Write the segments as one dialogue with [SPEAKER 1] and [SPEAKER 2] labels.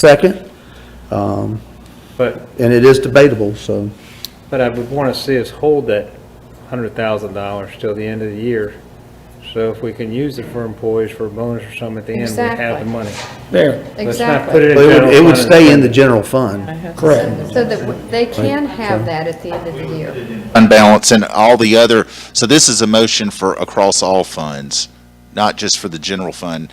[SPEAKER 1] second, um,
[SPEAKER 2] But,
[SPEAKER 1] and it is debatable, so,
[SPEAKER 2] but I would want to see us hold that hundred thousand dollars till the end of the year. So if we can use it for employees for a bonus or something at the end, we have the
[SPEAKER 3] Exactly.
[SPEAKER 2] money.
[SPEAKER 4] There,
[SPEAKER 2] Let's not put it
[SPEAKER 3] Exactly.
[SPEAKER 2] in
[SPEAKER 1] But it
[SPEAKER 2] general.
[SPEAKER 1] would, it would
[SPEAKER 2] fund
[SPEAKER 1] stay in the
[SPEAKER 2] instead.
[SPEAKER 1] general fund.
[SPEAKER 4] correct.
[SPEAKER 3] So that w- they can have that at the end of the year.
[SPEAKER 5] fund balance and all the other, so this is a motion for across all funds, not just for the general fund.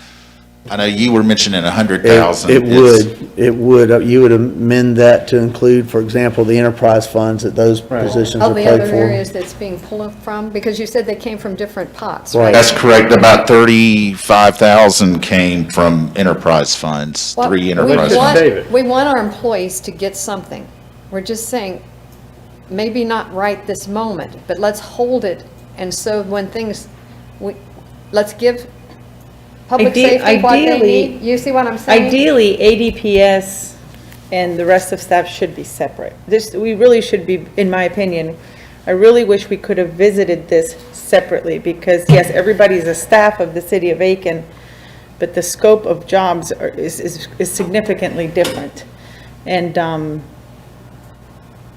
[SPEAKER 5] I know you were mentioning a hundred
[SPEAKER 1] It
[SPEAKER 5] thousand.
[SPEAKER 1] it would, it would, uh, you would amend that to include, for example, the enterprise funds that those
[SPEAKER 2] Right.
[SPEAKER 1] positions
[SPEAKER 3] All
[SPEAKER 1] are
[SPEAKER 3] the other
[SPEAKER 1] paid for.
[SPEAKER 3] areas that's being pulled from, because you said they came from different pots,
[SPEAKER 1] Right.
[SPEAKER 3] right?
[SPEAKER 5] That's correct, about thirty-five thousand came from enterprise funds,
[SPEAKER 3] Well,
[SPEAKER 5] three
[SPEAKER 3] we
[SPEAKER 5] enterprise
[SPEAKER 2] Just
[SPEAKER 3] want-
[SPEAKER 5] funds.
[SPEAKER 2] save it.
[SPEAKER 3] We want our employees to get something. We're just saying, maybe not right this moment, but let's hold it, and so when things, we, let's give public
[SPEAKER 6] Ide-
[SPEAKER 3] safety what they
[SPEAKER 6] ideally-
[SPEAKER 3] need. You see what I'm saying?
[SPEAKER 6] Ideally, ADPS and the rest of staff should be separate. This, we really should be, in my opinion, I really wish we could have visited this separately, because yes, everybody's a staff of the city of Aiken, but the scope of jobs are- is, is is significantly different. And, um,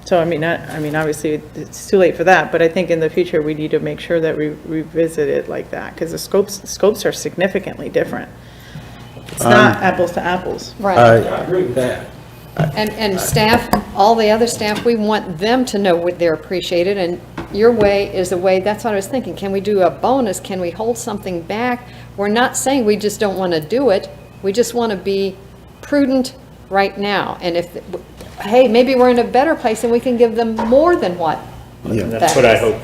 [SPEAKER 6] so I mean, I, I mean, obviously, it's too late for that, but I think in the future, we need to make sure that we revisit it like that, because the scopes, scopes are significantly different. It's not apples to apples.
[SPEAKER 3] Right.
[SPEAKER 1] I,
[SPEAKER 3] And, and staff, all the other staff, we want them to know what they're appreciated, and your way is the way, that's what I was thinking, can we do a bonus, can we hold something back? We're not saying we just don't want to do it, we just want to be prudent right now, and if, hey, maybe we're in a better place and we can give them more than what.
[SPEAKER 2] And That's what I hope.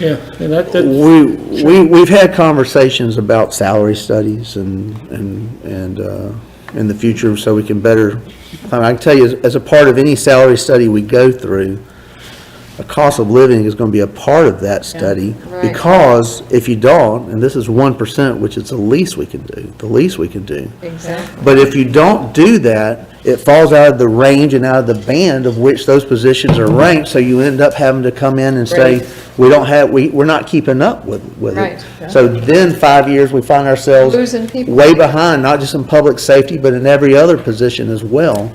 [SPEAKER 4] Yeah, and that, that,
[SPEAKER 1] We, we, we've had conversations about salary studies and, and, and, uh, in the future, so we can better, I mean, I can tell you, as- as a part of any salary study we go through, the cost of living is gonna be a part of that study.
[SPEAKER 3] Right.
[SPEAKER 1] Because if you don't, and this is one percent, which is the least we can do, the least we can do.
[SPEAKER 3] Exactly.
[SPEAKER 1] But if you don't do that, it falls out of the range and out of the band of which those positions are ranked, so you end up having to come in and say,
[SPEAKER 3] Right.
[SPEAKER 1] we don't have, we, we're not keeping up with, with
[SPEAKER 3] Right.
[SPEAKER 1] it. So then, five years, we find ourselves
[SPEAKER 3] Losing people.
[SPEAKER 1] way behind, not just in public safety, but in every other position as well.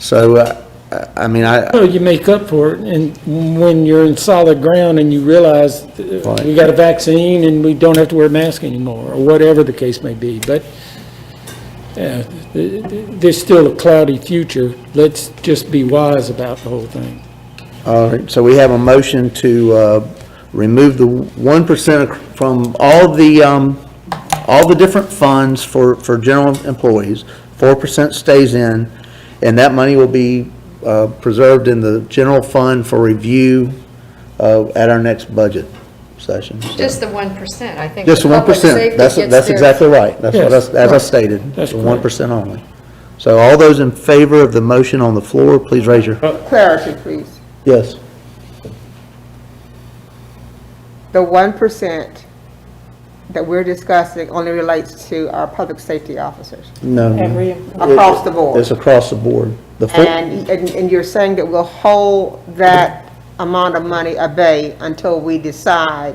[SPEAKER 1] So, uh, I, I mean, I,
[SPEAKER 4] so you make up for it, and when you're in solid ground and you realize that we got a vaccine and we don't have to wear masks anymore, or whatever the case may be, but, yeah, th- th- there's still a cloudy future. Let's just be wise about the whole thing.
[SPEAKER 1] All right, so we have a motion to uh, remove the 1% ac- from all the, um, all the different funds for, for general employees. 4% stays in, and that money will be uh, preserved in the general fund for review uh, at our next budget session. So-
[SPEAKER 3] Just the one percent, I think.
[SPEAKER 1] Just
[SPEAKER 3] the public
[SPEAKER 1] 1%,
[SPEAKER 3] safety
[SPEAKER 1] that's,
[SPEAKER 3] gets
[SPEAKER 1] that's
[SPEAKER 3] their-
[SPEAKER 1] exactly right. That's what I,
[SPEAKER 4] Yes,
[SPEAKER 1] as I
[SPEAKER 4] right.
[SPEAKER 1] stated,
[SPEAKER 4] That's
[SPEAKER 1] the 1% only. So all those in favor of the motion on the floor, please raise your,
[SPEAKER 4] Uh,
[SPEAKER 7] Clarity, please.
[SPEAKER 1] yes.
[SPEAKER 7] The one percent that we're discussing only relates to our public safety officers
[SPEAKER 1] No.
[SPEAKER 2] Mm-hmm.
[SPEAKER 1] no.
[SPEAKER 6] Every-
[SPEAKER 7] across the
[SPEAKER 1] It's
[SPEAKER 7] board.
[SPEAKER 1] across the board. The full-
[SPEAKER 7] And, and and you're saying that we'll hold that amount of money at bay until we decide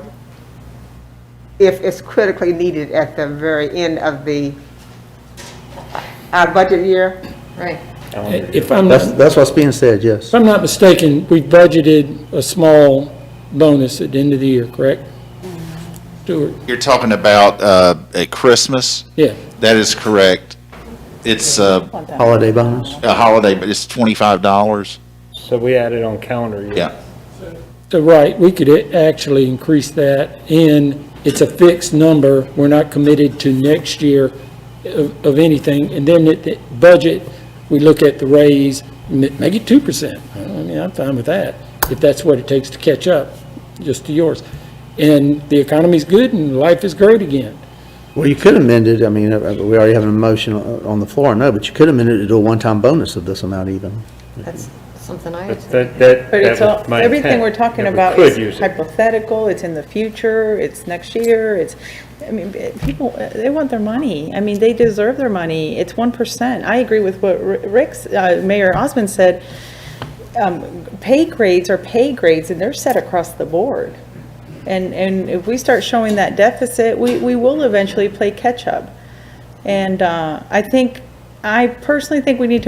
[SPEAKER 7] if it's critically needed at the very end of the, our budget year?
[SPEAKER 3] Right.
[SPEAKER 4] If I'm not
[SPEAKER 1] That's, that's what's being said,
[SPEAKER 4] If
[SPEAKER 1] yes.
[SPEAKER 4] I'm not mistaken, we budgeted a small bonus at the end of the year, correct? Stuart,
[SPEAKER 5] You're talking about, uh, at Christmas?
[SPEAKER 4] yeah,
[SPEAKER 5] That is correct. It's uh,
[SPEAKER 1] Holiday bonus.
[SPEAKER 5] a holiday, but it's twenty-five dollars.
[SPEAKER 2] So we added on calendar year.
[SPEAKER 5] Yeah.
[SPEAKER 4] so Uh, right, we could a- actually increase that, and it's a fixed number, we're not committed to next year of, of anything, and then at the budget, we look at the raise, ma- make it two percent, I mean, I'm fine with that, if that's what it takes to catch up, just to yours, and the economy's good and life is great again.
[SPEAKER 1] Well, you could amend it, I mean, uh, we already have an motion o- on the floor, I know, but you could amend it to do a one-time bonus of this amount even.
[SPEAKER 3] That's something I.
[SPEAKER 2] But that, that.
[SPEAKER 6] But it's
[SPEAKER 2] that
[SPEAKER 6] all,
[SPEAKER 2] was my
[SPEAKER 6] everything
[SPEAKER 2] intent,
[SPEAKER 6] we're talking
[SPEAKER 2] if we
[SPEAKER 6] about
[SPEAKER 2] could use
[SPEAKER 6] is
[SPEAKER 2] it.
[SPEAKER 6] hypothetical, it's in the future, it's next year, it's, I mean, eh, people, eh, they want their money. I mean, they deserve their money. It's 1%. I agree with what Ri- Rick's, uh, Mayor Osmond said. Um, Pay grades are pay grades, and they're set across the board. And, and if we start showing that deficit, we, we will eventually play catch-up. And uh, I think, I personally think we need to